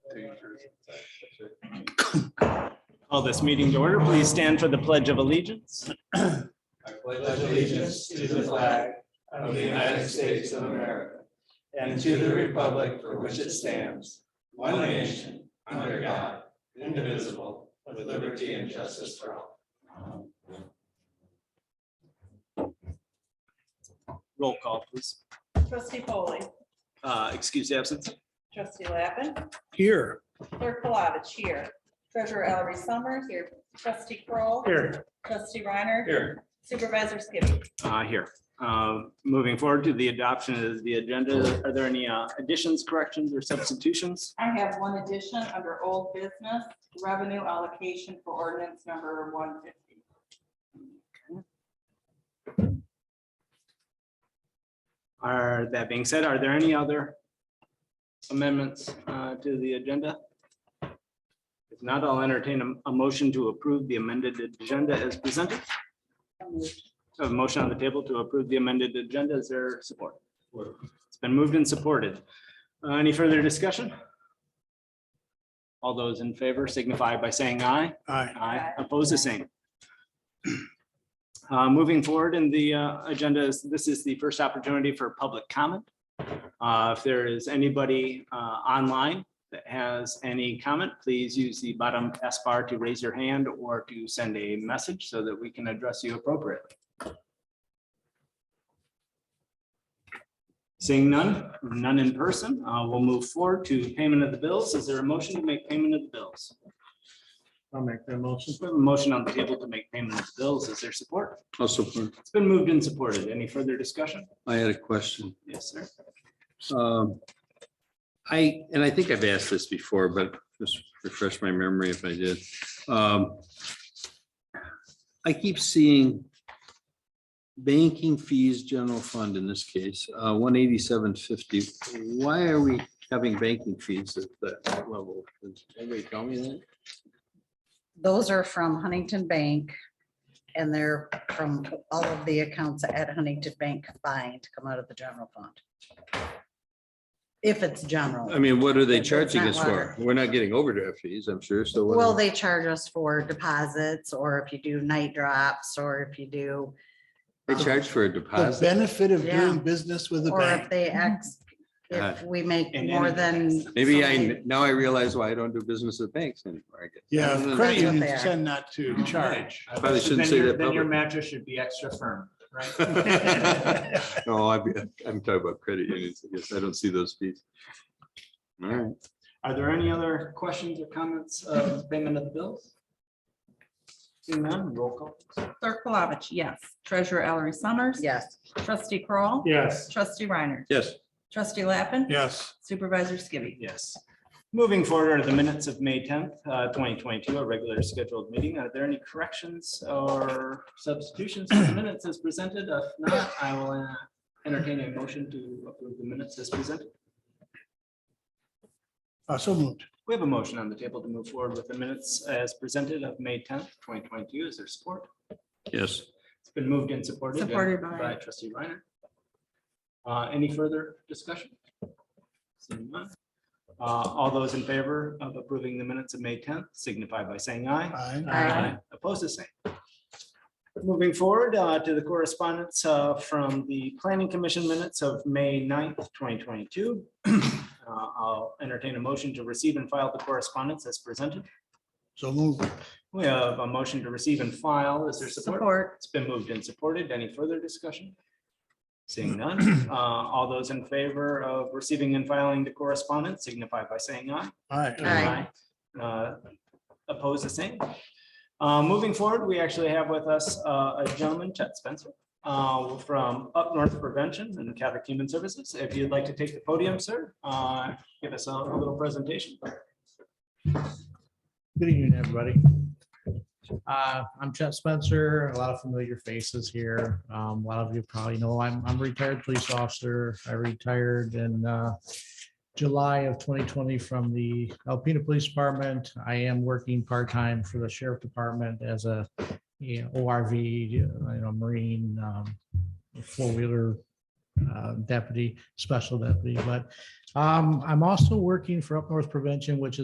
Call this meeting to order. Please stand for the Pledge of Allegiance. I pledge allegiance to the flag of the United States of America and to the republic for which it stands, one nation, under God, indivisible, with liberty and justice for all. Roll call, please. Trustee Foley, Uh, Excuse absence. trustee Lappin, Here. clerk Palovich here, treasurer Ellery Summers here, trustee Kroll, Here. trustee Reiner, Here. supervisor Skibby. Uh, Here. Um, Moving forward to the adoption of the agenda, are there any uh, additions, corrections, or substitutions? I have one addition under old business, revenue allocation for ordinance number one fifty. Are, that being said, are there any other amendments uh, to the agenda? If not, I'll entertain a- a motion to approve the amended agenda as presented. So A motion on the table to approve the amended agenda. Is there support? It's been moved and supported. Uh, Any further discussion? All those in favor signify by saying aye. Aye. Aye. Opposed, the same. Uh, Moving forward in the uh, agenda, is- this is the first opportunity for public comment. Uh, If there is anybody uh, online that has any comment, please use the bottom S bar to raise your hand or to send a message so that we can address you appropriately. Seeing none, none in person, uh, we'll move forward to payment of the bills. Is there a motion to make payment of the bills? I'll make that motion. There's been a motion on the table to make payment of the bills. Is there support? Also, It's been moved and supported. Any further discussion? I had a question. Yes, sir. Um, I, and I think I've asked this before, but just refresh my memory if I did. Um, I keep seeing banking fees, general fund in this case, uh, one eighty-seven fifty. Why are we having banking fees at that level? Does Anybody tell me that? Those are from Huntington Bank. And they're from all of the accounts at Huntington Bank combined, come out of the general fund. If it's I general, mean, what are they It's charging not us for? water. We're not getting overdraft fees, I'm sure, so. what are- well, they charge us for deposits or if you do night drops or if you do, They charge for a The deposit. benefit of doing Yeah. business with a or if bank. they ex, if God. we make And more energy than. taxes. Maybe so many- I, now I realize why I don't do business with banks anymore, I guess. Yeah, Other than credit That's what they unions are. tend not to charge. Probably shouldn't Then say your- that Then your publicly. mattress should be extra firm, right? that. No, I, I'm talking about credit unions. I guess I don't see those fees. All right, Are there any other questions or comments of payment of the bills? Seeing none, roll call. Clerk Palovich, yes. Treasurer Ellery Summers. Yes, Trustee Kroll. Yes. Trustee Reiner. yes, Trustee Lappin. Yes. Supervisor Skibby. Yes. Moving forward are the minutes of May tenth, uh, twenty twenty-two, a regular scheduled meeting. Are there any corrections or substitutions to the minutes as presented? If not, I will uh, entertain a motion to approve the minutes as presented. Uh, So moved. We have a motion on the table to move forward with the minutes as presented of May tenth, twenty twenty-two. Is there support? yes. It's been moved and supported. uh, Supported by- By trustee Reiner. Uh, any further discussion? Seeing none. Uh, all those in favor of approving the minutes of May tenth signify by saying aye. Aye. Aye. Opposed, the same. Moving forward uh, to the correspondence uh, from the planning commission minutes of May 9th, twenty twenty-two. Uh, I'll entertain a motion to receive and file the correspondence as presented. So moved. We have a motion to receive and file. Is there support? Support. It's been moved and supported. Any further discussion? Seeing none, uh, all those in favor of receiving and filing the correspondence signify by saying aye. Aye. Aye. Uh, Opposed, the same. Uh, Moving forward, we actually have with us uh, a gentleman, Chet Spencer, uh, from Up North Prevention and Catholic Human Services. If you'd like to take the podium, sir, uh, give us a a little presentation. Good evening, everybody. Uh, I'm Chet Spencer, a lot of familiar faces here. Um, A lot of you probably know I'm I'm a retired police officer. I retired in uh, July of 2020 from the Alpena Police Department. I am working part-time for the Sheriff Department as a you know, ORV, you know, Marine, um, four-wheeler uh, deputy, special deputy. But um, I'm also working for Up North Prevention, which is.